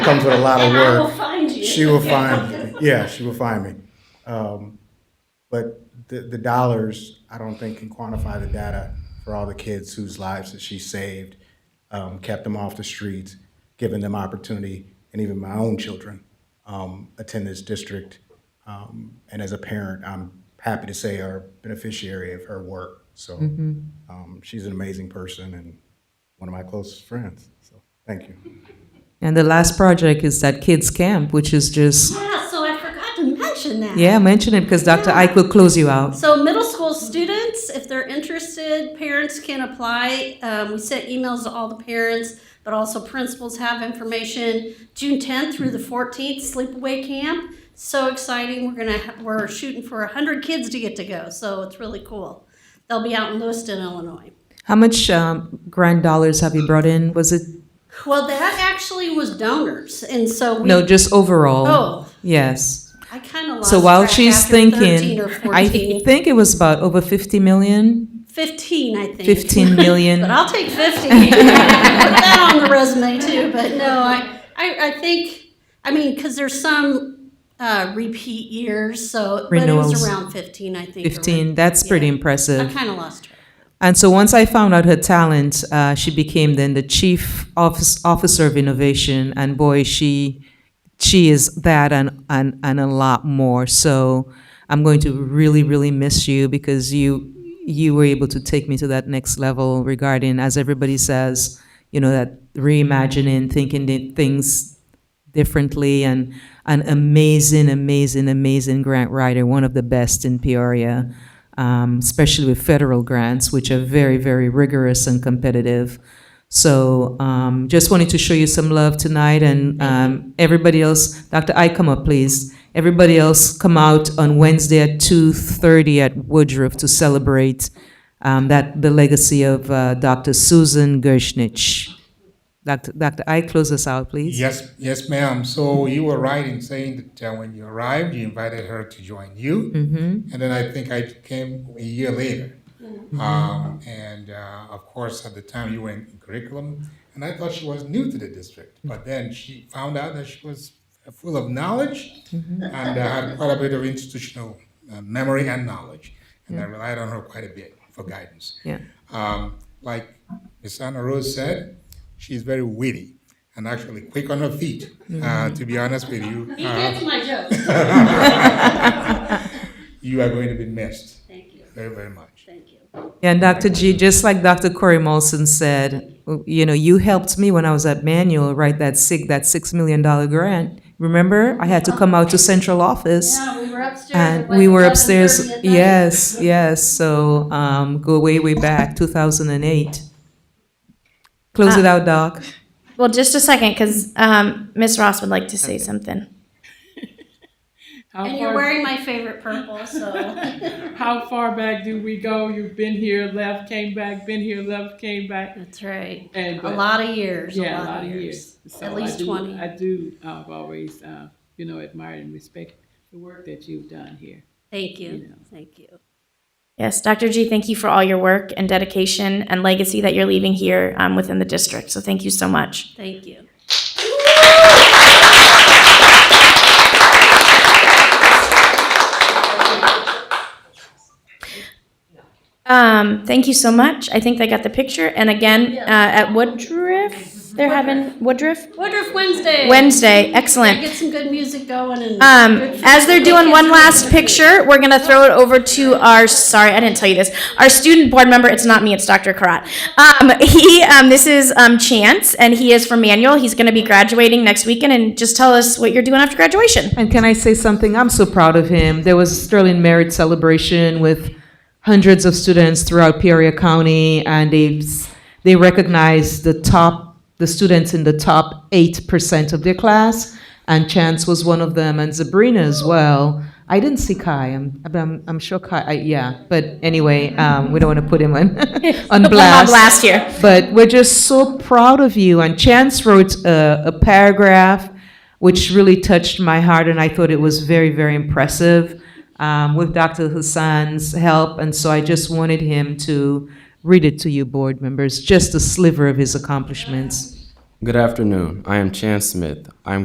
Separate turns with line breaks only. comes with a lot of
And I will
work.
find you.
She will find me. Yeah, she will find me. Um, But the, the dollars, I don't think can quantify the data for all the kids whose lives that she saved, um, kept them off the streets, given them opportunity, and even my own children um, attend this district. Um, And as a parent, I'm happy to say are beneficiary of her work. So um, she's an amazing person and one of my closest friends. So thank you.
And the last project is that kids camp, which is just
Yeah, Ah, so I forgot to mention that.
yeah, mention it because Dr.
Yeah.
Ike will close you out.
So middle school students, if they're interested, parents can apply. Um, we sent emails to all the parents, but also principals have information. June 10th through the 14th, sleepaway camp. So exciting! We're gonna ha- we're shooting for 100 kids to get to go, so it's really cool. They'll be out in Lewiston, Illinois.
How much um, grand dollars have you brought in? Was it
Well, that actually was donors, and so we
no, just overall?
Oh.
yes.
I kind of lost.
So while
track
she's
after 13
thinking,
or
I
14.
think it was about over 50 million.
15, I think.
15 million.
but I'll take 50. Put that on the resume too. But no, I, I, I think, I mean, because there's some uh, repeat years. So but it
Renewals.
was around 15, I think. or-
15. That's pretty
Yeah.
impressive.
I kind of lost track.
And so once I found out her talent, uh, she became then the chief office, officer of innovation, and boy, she she is that and, and and a lot more. So I'm going to really really miss you because you you were able to take me to that next level regarding, as everybody says, you know that reimagining, thinking di- things differently, and an amazing, amazing, amazing grant writer, one of the best in Peoria um, especially with federal grants, which are very, very rigorous and competitive. So um, just wanted to show you some love tonight, and um, everybody else, Dr. I, come up, please. Everybody else, come out on Wednesday at 2:30 at Woodruff to celebrate um, that the legacy of uh, Dr. Susan Gershnich. Dr. Dr. I, close us out, please.
Yes, yes, ma'am. So you were right in saying that uh, when you arrived, you invited her to join you, and then I think I came a year later.
Mm-hmm.
Um, and uh, of course, at the time you were in curriculum, and I thought she was new to the district, but then she found out that she was full of knowledge
Mm-hmm.
and uh, had quite a bit of institutional uh, memory and knowledge, and I relied on her quite a bit for guidance.
Yeah.
Um, like Ms. Anna Rose said, she's very witty and actually quick on her feet, uh, to be honest with you.
You
Uh,
did my joke.
you are going to be missed
Thank you.
very, very much.
Thank you.
Yeah, and Dr. G, just like Dr. Corey Molson said, you know, you helped me when I was at Manual write that six, that six million dollar grant. Remember, I had to come out to central office
Yeah, we were upstairs. at
and
like
Uh, we were
11:30
upstairs.
at night.
Yes, yes. So, um, go way, way back, two thousand and eight. Close
Uh,
it out, Doc.
Well, just a second, because um, Miss Ross would like to say something.
How
And you're
far,
wearing my favorite purple, so.
how far back do we go? You've been here, left, came back, been here, left, came back.
That's right.
And
A
but-
lot of years.
yeah, a lot of years. So
At least
I do,
20.
I do. I've always, uh, you know, admired and respect the work that you've done here.
Thank
You
you.
know.
Thank you.
Yes, Dr. G, thank you for all your work and dedication and legacy that you're leaving here um, within the district. So thank you so much.
Thank you.
Um, thank you so much. I think they got the picture. And again, uh, at Woodruff, they're having Woodruff
Woodruff Wednesday.
Wednesday.
Gotta
Excellent.
Get some good music going and.
Um,
good food.
as they're doing one last picture, we're gonna throw it over to our, sorry, I didn't tell you this, our student board member, it's not me, it's Dr. Karat. Um, he, um, this is, um, Chance, and he is from Manual, he's gonna be graduating next weekend, and just tell us what you're doing after graduation.
And can I say something? I'm so proud of him. There was a Sterling Merit Celebration with hundreds of students throughout Peoria County, and they they recognized the top the students in the top eight percent of their class, and Chance was one of them, and Sabrina as well. I didn't see Kai. I'm but I'm, I'm sure Kai. I, yeah, but anyway, um, we don't want to put him on on
Put them
blast.
blast here.
But we're just so proud of you. And Chance wrote a, a paragraph which really touched my heart, and I thought it was very, very impressive um, with Dr. Hassan's help. And so I just wanted him to read it to you, board members, just a sliver of his accomplishments.
Good afternoon. I am Chan Smith. I am